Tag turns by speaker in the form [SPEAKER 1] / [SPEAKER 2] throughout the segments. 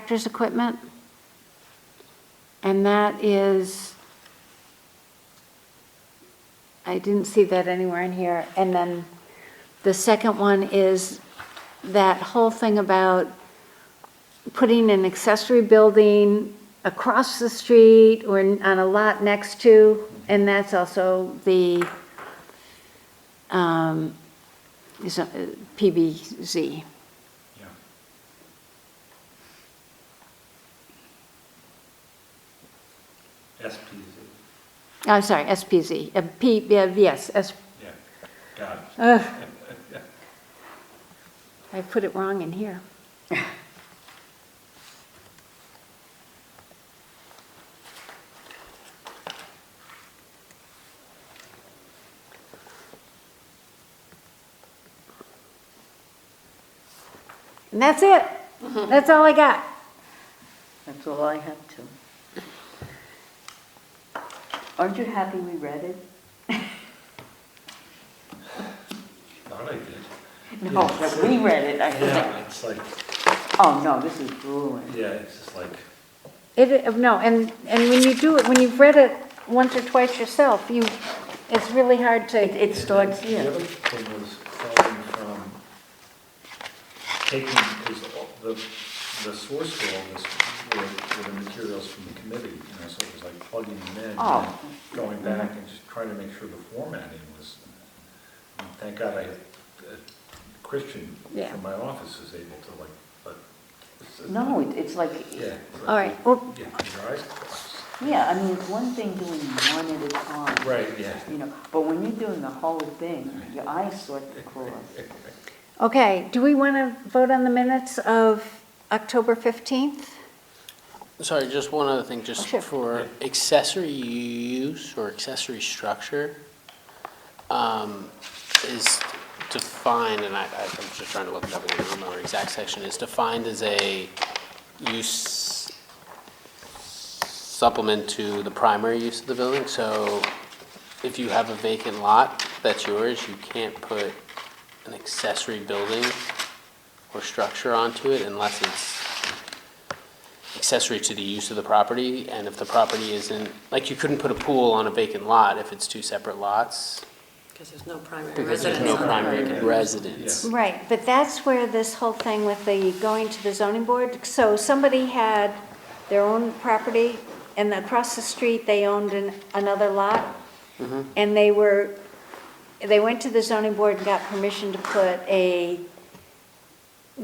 [SPEAKER 1] doctor's equipment. And that is, I didn't see that anywhere in here. And then the second one is that whole thing about putting an accessory building across the street or on a lot next to, and that's also the, um, is, uh, PBZ.
[SPEAKER 2] Yeah. SPZ,
[SPEAKER 1] I'm sorry, SPZ, uh, P, yeah, yes, S,
[SPEAKER 2] yeah, got it.
[SPEAKER 1] ugh. I put it wrong in here. And that's it.
[SPEAKER 3] Mm-hmm.
[SPEAKER 1] That's all I got.
[SPEAKER 3] That's all I have to. Aren't you happy we read it?
[SPEAKER 2] Thought I did.
[SPEAKER 3] No, that we read it, I think.
[SPEAKER 2] Yeah, it's like,
[SPEAKER 3] Oh, no, this is grueling.
[SPEAKER 2] yeah, it's just like,
[SPEAKER 1] It, no, and, and when you do it, when you've read it once or twice yourself, you, it's really hard
[SPEAKER 3] It,
[SPEAKER 1] to,
[SPEAKER 3] it starts
[SPEAKER 2] The
[SPEAKER 3] here.
[SPEAKER 2] other thing was following from taking, because the, the source for all this were, were the materials from the committee, you know, so it was like plugging them in. and
[SPEAKER 3] Oh.
[SPEAKER 2] Going back and just trying to make sure the formatting was, and thank God I, uh, Christian
[SPEAKER 1] Yeah.
[SPEAKER 2] from my office is able to like, but. it's-
[SPEAKER 3] No, it- it's like,
[SPEAKER 2] Yeah. it's like-
[SPEAKER 1] all right, well,
[SPEAKER 2] Yeah, your eyes closed.
[SPEAKER 3] yeah, I mean, it's one thing doing one at a time.
[SPEAKER 2] Right, yeah.
[SPEAKER 3] You know, but when you're doing the whole thing, your eyes sort to close.
[SPEAKER 1] Okay, do we want to vote on the minutes of October 15th?
[SPEAKER 4] Sorry, just one other thing,
[SPEAKER 1] Oh,
[SPEAKER 4] just
[SPEAKER 1] sure.
[SPEAKER 4] for accessory use or accessory structure um, is defined, and I, I- I'm just trying to look it up, I don't remember the exact section, is defined as a use supplement to the primary use of the building, so if you have a vacant lot that's yours, you can't put an accessory building or structure onto it unless it's accessory to the use of the property, and if the property isn't, like, you couldn't put a pool on a vacant lot if it's two separate lots,
[SPEAKER 5] Because there's no primary
[SPEAKER 4] because there's
[SPEAKER 5] residence.
[SPEAKER 4] no
[SPEAKER 5] on it.
[SPEAKER 4] primary
[SPEAKER 2] Yeah.
[SPEAKER 4] residence.
[SPEAKER 1] Right, but that's where this whole thing with the going to the zoning board, so somebody had their own property, and across the street, they owned an- another lot,
[SPEAKER 4] Mm-hmm.
[SPEAKER 1] and they were, they went to the zoning board and got permission to put a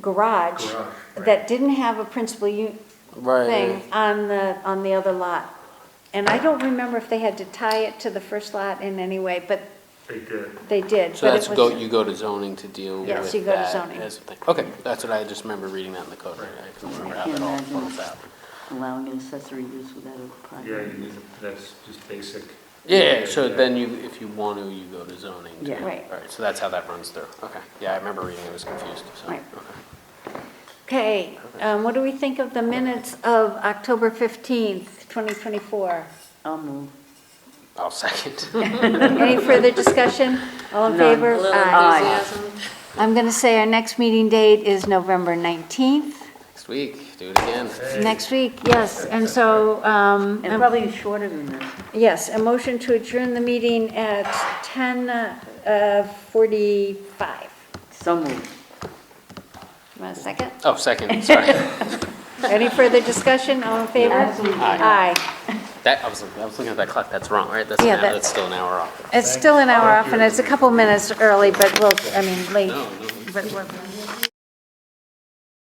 [SPEAKER 1] garage
[SPEAKER 2] Garage, right.
[SPEAKER 1] that didn't have a principal u- thing
[SPEAKER 4] Right,
[SPEAKER 1] on the, on the other lot. And I don't remember if they had to tie it to the first lot in any way, but
[SPEAKER 2] They did.
[SPEAKER 1] they did.
[SPEAKER 4] so
[SPEAKER 1] but it
[SPEAKER 4] that's
[SPEAKER 1] was-
[SPEAKER 4] go, you go to zoning to deal with that.
[SPEAKER 1] Yes, you go to zoning.
[SPEAKER 4] as a thing. Okay, that's what I just remember reading that in the code, right, I couldn't remember how
[SPEAKER 3] Can
[SPEAKER 4] that all
[SPEAKER 3] imagine.
[SPEAKER 4] flows out.
[SPEAKER 3] Allowing an accessory use without a
[SPEAKER 2] Yeah,
[SPEAKER 3] primary.
[SPEAKER 2] you need, that's just basic.
[SPEAKER 4] Yeah, so
[SPEAKER 2] Yeah.
[SPEAKER 4] then you, if you want to, you go to zoning. to-
[SPEAKER 3] Yeah.
[SPEAKER 1] Right.
[SPEAKER 4] All right, so that's how that runs through, okay, yeah, I remember reading, I was confused, so,
[SPEAKER 1] Right.
[SPEAKER 4] okay.
[SPEAKER 1] Okay, um, what do we think of the minutes of October 15th, 2024?
[SPEAKER 3] I'll move.
[SPEAKER 4] I'll second.
[SPEAKER 1] Any further discussion? All in
[SPEAKER 3] None.
[SPEAKER 1] favor?
[SPEAKER 5] A little
[SPEAKER 1] Aye.
[SPEAKER 5] enthusiasm.
[SPEAKER 1] I'm going to say our next meeting date is November 19th,
[SPEAKER 4] Next week, do it again.
[SPEAKER 2] Hey.
[SPEAKER 1] next week, yes. And so, um,
[SPEAKER 3] And probably shorter than this.
[SPEAKER 1] yes, a motion to adjourn the meeting at uh, 10:45.
[SPEAKER 3] So moved.
[SPEAKER 1] Want a second?
[SPEAKER 4] Oh, second, sorry.
[SPEAKER 1] Any further discussion? All in favor?
[SPEAKER 3] Absolutely.
[SPEAKER 1] Aye.
[SPEAKER 4] That, I was, I was looking at that clock, that's wrong, right? That's, an
[SPEAKER 1] Yeah,
[SPEAKER 4] hour-
[SPEAKER 1] that-
[SPEAKER 4] that's still an hour off.
[SPEAKER 1] It's still an hour off, and it's a couple minutes early, but we'll, I mean, late,
[SPEAKER 4] No, no.
[SPEAKER 1] but we're.